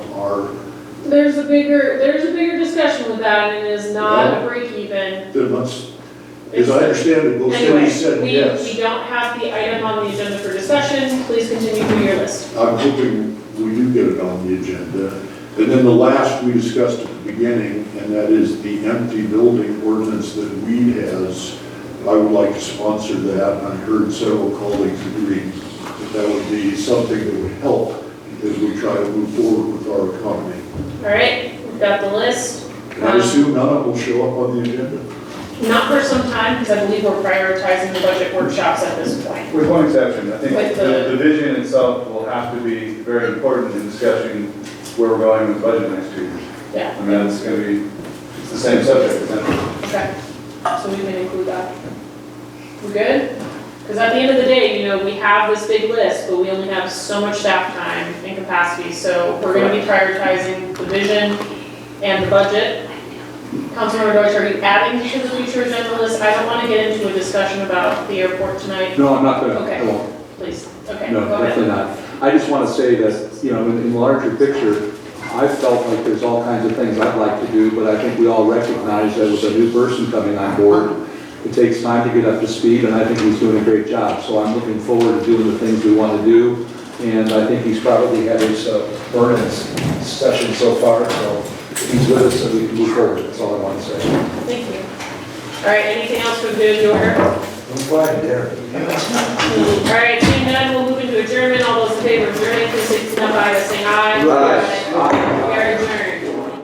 hard. There's a bigger, there's a bigger discussion with that, and it is not a break even. Then let's, as I understand it, both Anyway, cities said we, we yes. don't have the item on the agenda for discussion, please continue through your list. I'm hoping we do get it on the agenda. And then the last we discussed at the beginning, and that is the empty building ordinance that Weed has. I would like to sponsor that, and I heard several colleagues agree that that would be something that would help as we try to move forward with our economy. All right, we've got the list, And I assume none of them will show up on the agenda. not for some time, because I believe we're prioritizing the budget workshops at this point. With one exception, I think With the the- the vision itself will have to be very important in discussing where we're going with budget next year. Yeah. I mean, it's gonna be, it's the same subject, isn't it? Okay, so we can include that. We're good? Because at the end of the day, you know, we have this big list, but we only have so much staff time and capacity, so we're gonna be prioritizing the vision and the budget. Councilmember Deutsch, are you adding to the future agenda list? I don't wanna get into a discussion about the airport tonight, No, I'm not gonna, Okay. I won't. please. Okay, no, go ahead. definitely not. I just want to say that, you know, in in the larger picture, I felt like there's all kinds of things I'd like to do, but I think we all recognize that with a new person coming on board, it takes time to get up to speed, and I think he's doing a great job. So I'm looking forward to doing the things we want to do, and I think he's probably had his uh, burn-ins session so far, so he's with us, and we can move forward, that's all I want to say. Thank you. All right, anything else for good order? I'm glad you're All right, seeing none, we'll move into adjournment. All those in favor of adjourning, please signify by saying aye. Aye. We are adjourned.